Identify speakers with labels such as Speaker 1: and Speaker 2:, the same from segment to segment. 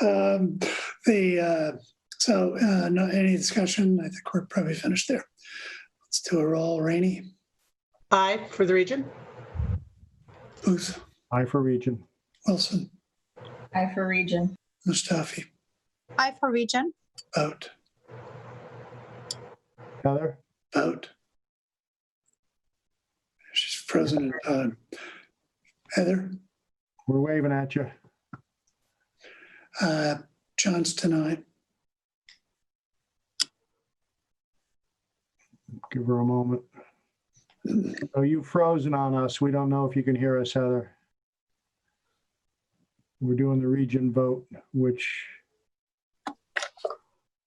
Speaker 1: Um, The, uh, so uh, no, any discussion? I think we're probably finished there. Let's do a roll. Rainey,
Speaker 2: Aye for the region.
Speaker 1: Booth,
Speaker 3: Aye for region.
Speaker 1: Wilson,
Speaker 4: I for region.
Speaker 1: Mustafi,
Speaker 5: I for region.
Speaker 1: vote,
Speaker 3: Heather?
Speaker 1: vote. She's frozen in time. Heather,
Speaker 3: We're waving at you.
Speaker 1: uh, Johnston, I,
Speaker 3: Give her a moment. Oh, you've frozen on us. We don't know if you can hear us, Heather. We're doing the region vote, which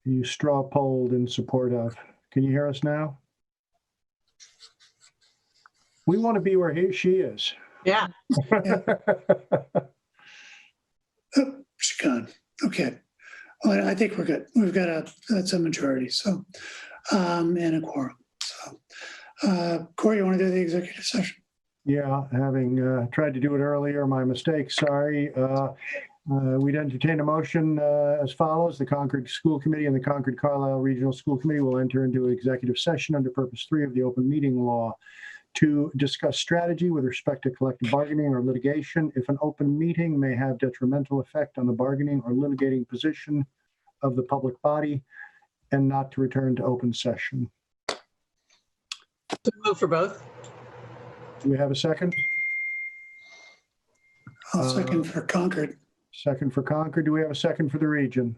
Speaker 3: you straw polled in support of. Can you hear us now? We want to be where he, she is.
Speaker 2: Yeah.
Speaker 1: oh, she's gone. Okay. Well, I think we're good. We've got a, that's a majority, so, um, and a quorum, so. Uh, Corey, you want to do the executive session?
Speaker 3: Yeah, having uh, tried to do it earlier, my mistake, sorry. Uh, uh, We'd entertain a motion uh, as follows. The Concord School Committee and the Concord Carlisle Regional School Committee will enter into executive session under purpose three of the open meeting law to discuss strategy with respect to collective bargaining or litigation if an open meeting may have detrimental effect on the bargaining or litigating position of the public body and not to return to open session.
Speaker 2: So Move oh for both.
Speaker 3: Do we have a second?
Speaker 1: I'll
Speaker 3: Uh,
Speaker 1: second for Concord.
Speaker 3: Second for Concord. Do we have a second for the region?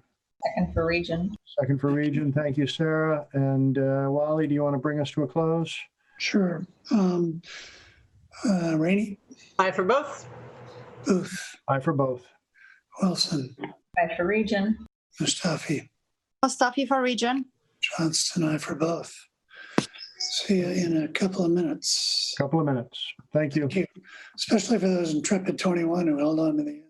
Speaker 4: Second for region.
Speaker 3: Second for region. Thank you, Sarah. And uh, Wally, do you want to bring us to a close?
Speaker 1: Sure. Um, uh, Rainey,
Speaker 2: Aye for both.
Speaker 1: Booth,
Speaker 3: Aye for both.
Speaker 1: Wilson,
Speaker 4: I for region.
Speaker 1: Mustafi,
Speaker 5: Mustafi for region.
Speaker 1: Johnston, I for both. See you in a couple of minutes,
Speaker 3: Couple of minutes. Thank you.
Speaker 1: especially for those intrepid 21 who held on to the end.